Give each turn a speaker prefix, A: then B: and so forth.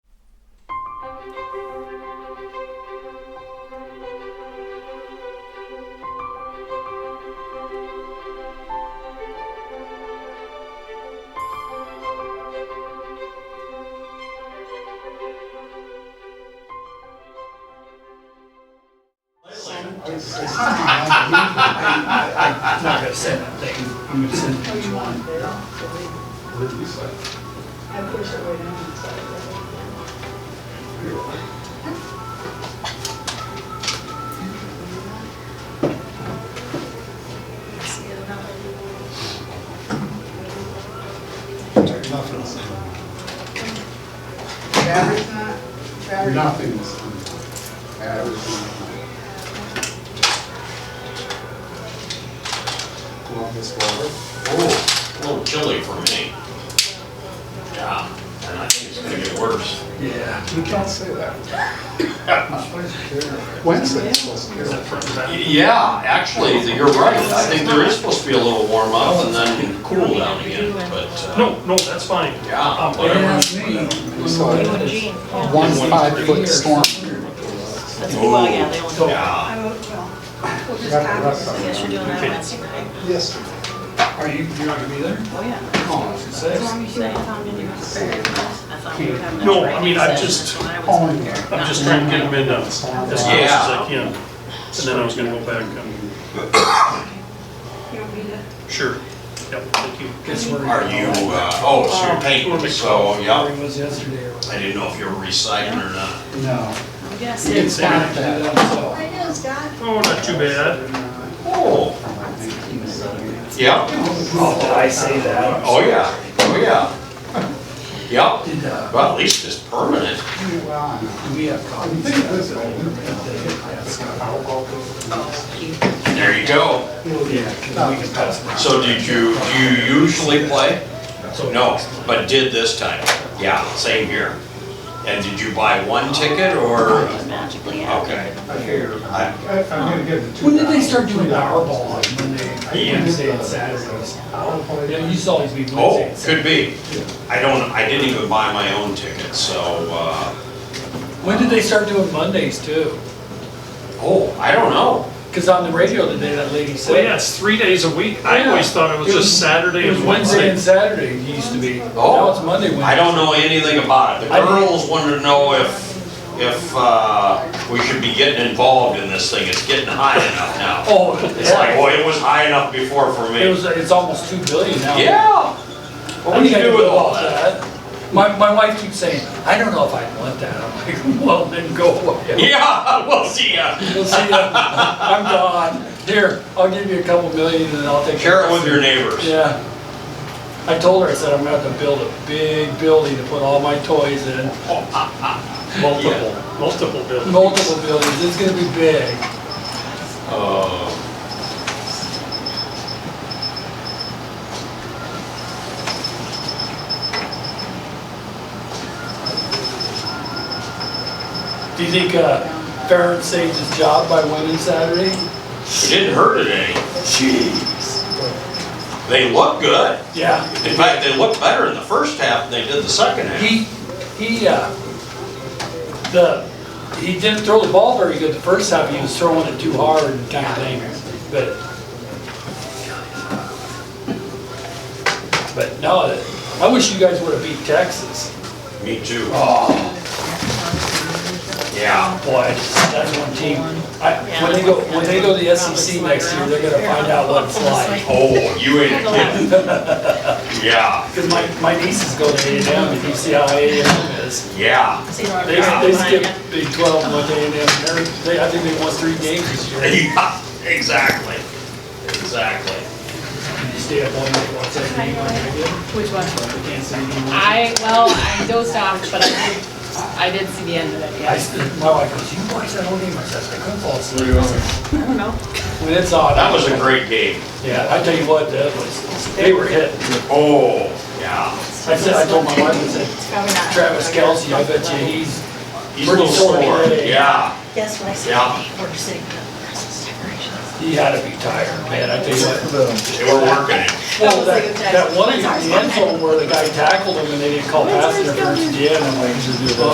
A: It's it's not my I- I'm not gonna send that thing, I'm gonna send page one.
B: What did you say?
C: I wish I would have.
B: Nothing's in,
C: Battery's not, battery.
B: nothing's in. Average. Columbus water.
D: Oh, a little chilly for me. Yeah, and I think it's gonna get worse.
A: Yeah.
B: You can't say that. Wednesday it's supposed to be.
D: Yeah, actually, you're right. I think there is supposed to be a little warm up and then cool down again, but. uh,
E: No, no, that's fine.
D: Yeah,
E: Um,
D: whatever.
A: That's me.
B: We saw
F: Gene, yeah.
B: one five-foot storm.
F: Well, yeah,
D: Yeah,
F: they only.
C: I will, well, we'll just
B: Yeah,
C: have
B: that's
C: this.
B: fine.
F: Yes, you're doing that Wednesday night.
B: Yesterday.
A: Are you, you're not gonna be there?
F: Oh, yeah.
A: Oh, it's
F: As
A: six.
F: long as you have time to do it. I thought we would have enough
E: No, I mean, I
F: training
E: just-
F: sessions when I was
B: Oh,
F: there.
B: yeah.
E: I'm just trying to get them in uh, as close as I
D: Yeah.
E: can. And then I was gonna go back and,
C: You don't need it.
E: sure. Yep, thank you.
A: Guess where
D: are you, uh, oh, so you're painting, so,
A: Where
D: yeah.
A: it was yesterday or
D: I didn't know if you were recycling or not.
B: No.
F: I'm guessing.
B: It's not that.
C: I know, it's got
E: Oh, not too bad.
D: Oh, yeah,
A: Oh, I say that.
D: oh, yeah, oh, yeah. Yep,
A: Did, uh,
D: well, at least it's permanent.
A: do we have
B: I
A: copies?
B: think this one.
D: There you go.
A: Yeah, 'cause we can pass them.
D: So did you, do you usually play? No, but did this time. Yeah, same here. And did you buy one ticket or?
F: It's magically happening.
D: Okay.
B: I- I'm gonna give it two.
A: When did they start
B: dollars.
A: doing
B: Two dollars.
A: Powerball, like when they,
D: Yeah.
A: Wednesday and Saturdays?
B: Powerball.
A: Yeah, you saw these be Wednesday
D: Oh,
A: and
D: could
A: Saturday.
D: be. I don't, I didn't even buy my own ticket, so, uh,
G: When did they start doing Mondays too?
D: oh, I don't know.
G: Because on the radio today, that lady
E: Well,
G: said.
E: yeah, it's three days a week. I
G: Yeah.
E: always thought it was just Saturday
G: It was
E: and Wednesday.
G: Wednesday and Saturday it used to be.
D: Oh.
G: Now it's Monday, Wednesday.
D: I don't know anything about it. The
G: I didn't-
D: girls wanted to know if, if, uh, we should be getting involved in this thing. It's getting high enough now.
G: Oh,
D: It's like,
G: yeah.
D: boy, it was high enough before for
G: It was,
D: me.
G: it's almost two billion now.
D: Yeah. What
G: I
D: do you
G: think I
D: do
G: could
D: with
G: go
D: all
G: with
D: that?
G: that. My, my wife keeps saying, I don't know if I want that. I'm like, well, then go away.
D: Yeah, we'll see ya.
G: We'll see, I'm gone. Here, I'll give you a couple million and I'll take.
D: Share it
G: the
D: with
G: rest."
D: your neighbors.
G: Yeah. I told her, I said, I'm gonna have to build a big building to put all my toys in.
E: Multiple, multiple bills.
G: Multiple buildings, it's gonna be big.
D: Uh,
G: Do you think uh, Farron saved his job by winning Saturday?
D: it didn't hurt it any.
G: Jeez.
D: They look good.
G: Yeah.
D: In fact, they looked better in the first half than they did the second half.
G: He, he, uh, the, he didn't throw the ball very good the first half, he was throwing it too hard and kind of thing, but. But no, I wish you guys would have beat Texas.
D: Me too.
G: Oh.
D: Yeah.
G: Boy, that's one team. I, when they go, when they go to the SEC next year, they're gonna find out what it's like.
D: Oh, you ain't kidding. Yeah,
G: Because my, my niece is going to A and M, and you see how A and M is.
D: yeah.
F: See, Laura,
G: They,
F: I'm
G: they
F: behind
G: skipped Big Twelve and went to A and M. They're- They, I think they won three games this year.
D: Yeah, exactly. Exactly.
G: You stay up all night watching that game. I
H: Which one?
G: did. Can't say anymore.
H: I, well, I dozed off, but I did, I did see the end of it,
G: I,
H: yes.
G: s- my wife goes, you watched that whole game? I said, I couldn't fall asleep.
H: I don't know.
G: When it's on.
D: That was a great game.
G: Yeah, I tell you what, that was, they were hitting.
D: Oh, yeah.
G: I said, I told my wife, I said,
H: It's probably not.
G: Travis Kelsey, I bet you he's
D: He's a little sore. Yeah,
F: Guess what I said?
D: Yeah.
F: We're sitting up for Christmas decorations.
G: He had to be tired, man, I tell you what.
D: they were working it.
G: Well, that, that one in the end zone where the guy tackled him and they didn't call pass interference, yeah, and I'm like,